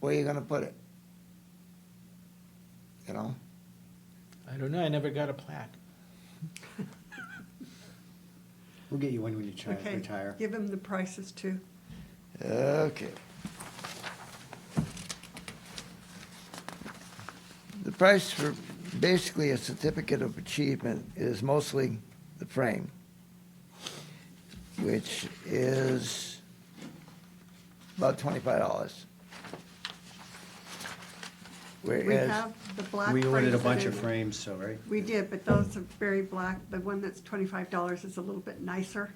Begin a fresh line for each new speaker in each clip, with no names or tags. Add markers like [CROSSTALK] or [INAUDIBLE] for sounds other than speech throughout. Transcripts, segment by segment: where you gonna put it? You know?
I don't know, I never got a plaque.
We'll get you one when you try,
Okay,
retire.
Give him the prices too.
Okay. The price for basically a certificate of achievement is mostly the frame, which is about twenty-five dollars.
We
Whereas,
have the black.
We ordered
frames
a
that
bunch
are-
of frames, so, right?
We did, but those are very black. The one that's twenty-five dollars is a little bit nicer.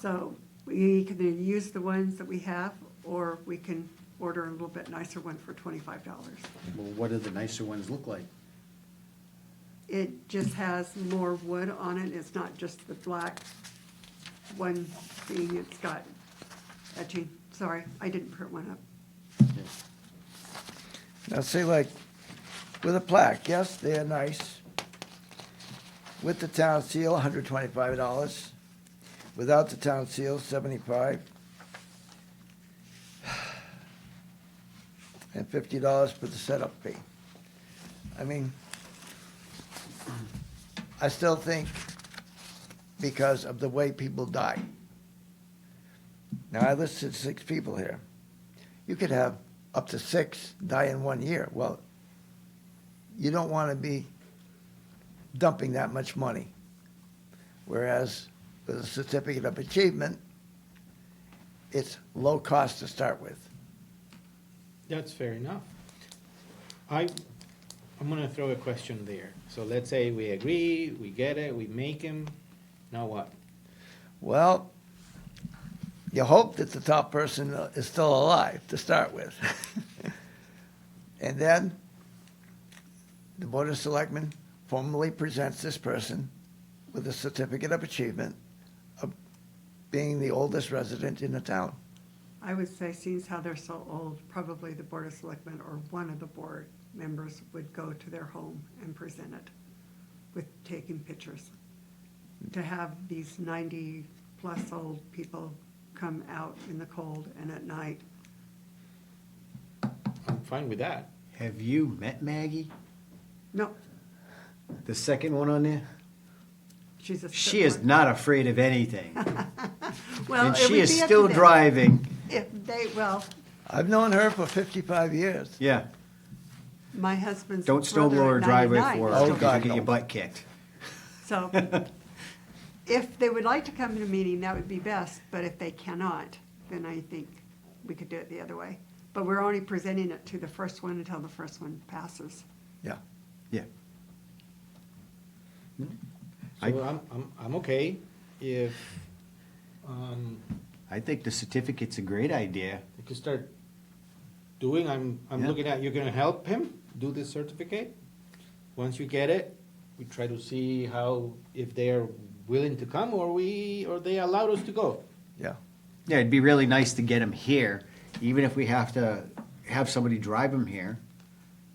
So we can either use the ones that we have, or we can order a little bit nicer one for twenty-five dollars.
Well, what do the nicer ones look like?
It just has more wood on it. It's not just the black one thing. It's got etching. Sorry, I didn't print one up.
Yeah.
now see like, with a plaque, yes, they're nice. With the town seal, hundred twenty-five dollars. Without the town seal, seventy-five. [SIGHS] And fifty dollars for the setup fee. I mean, I still think because of the way people die. Now, I listed six people here. You could have up to six die in one year. Well, you don't want to be dumping that much money. Whereas with a certificate of achievement, it's low cost to start with.
That's fair enough. I, I'm gonna throw a question there. So let's say we agree, we get it, we make him, now what?
Well, you hope that the top person is still alive to start
[LAUGHS]
with. and then the Board of Selectmen formally presents this person with a certificate of achievement of being the oldest resident in the town.
I would say, seeing as how they're so old, probably the Board of Selectmen or one of the board members would go to their home and present it with taking pictures. To have these ninety-plus old people come out in the cold and at night,
I'm fine with that.
Have you met Maggie?
no,
The second one on there?
she's a.
She is not afraid of anything.
[LAUGHS] Well,
And
it would
she is
be up to
still
them.
driving.
If they, well,
I've known her for 55 years.
Yeah,
my husband's.
don't snowblow
brother
her
at
driveway
99
for
Oh, God,
her, because you get your
no.
butt kicked.
[LAUGHS]
So if they would like to come to a meeting, that would be best, but if they cannot, then I think we could do it the other way. But we're only presenting it to the first one until the first one passes.
Yeah.
Yeah.
So
I-
I'm, I'm, I'm okay if, um,
I think the certificate's a great idea.
we could start doing, I'm, I'm
Yeah.
looking at, you're gonna help him do this certificate? Once you get it, we try to see how, if they are willing to come or we, or they allowed us to go.
Yeah.
Yeah, it'd be really nice to get him here, even if we have to have somebody drive him here.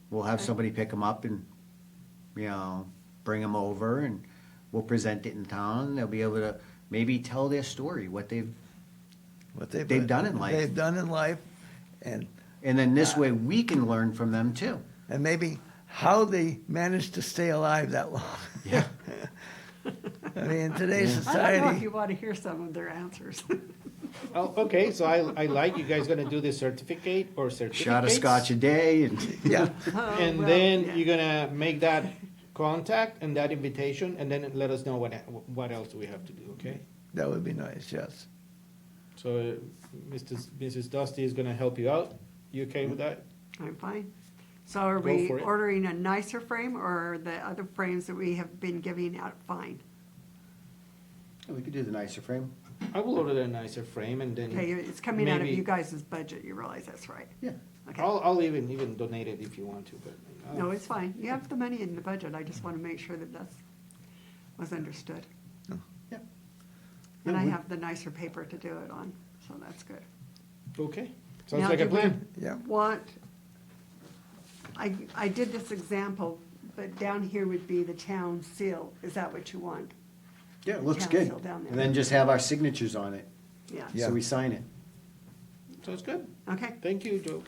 We'll have somebody pick him up and, you know, bring him over and we'll present it in town. They'll be able to maybe tell their story, what they've,
What they've,
They've done in
what
life.
They've done in life. And,
and then this way we can learn from them too.
and maybe how they managed to stay alive that long.
Yeah.
[LAUGHS] I mean, in today's
I don't know
society.
if you want to hear some of their answers. [LAUGHS]
Oh, okay, so I, I like you guys gonna do this certificate or certificates.
Shot of scotch a day [LAUGHS] and,
Yeah.
Oh,
And then you're gonna make that contact and that invitation, and then let us know what, what else we have to do, okay?
That would be nice, yes.
So, uh, Mr. S- Mrs. Dusty is gonna help you out, you okay with that?
I'm fine. So are
Go
we
for it.
ordering a nicer frame or are the other frames that we have been giving out fine?
we could do the nicer frame.
I will order a nicer frame and
Okay,
then,
it's coming out of
Maybe-
you guys' budget, you realize that's right?
Yeah.
Okay.
I'll, I'll even, even donate it if you want to, but. uh,
No, it's fine. You have the money in the budget. I just want to make sure that that's, was understood.
Yeah.
And I
Yeah, we-
have the nicer paper to do it on, so that's good.
Okay, sounds
Now,
like a
do we-
plan.
Yeah.
Want, I, I did this example, but down here would be the town seal. Is that what you want?
Yeah, it looks
Town
good.
seal down there.
And then just have our signatures on it,
Yeah,
Yeah.
so we sign it.
Sounds good.
okay.
Thank you, Joe.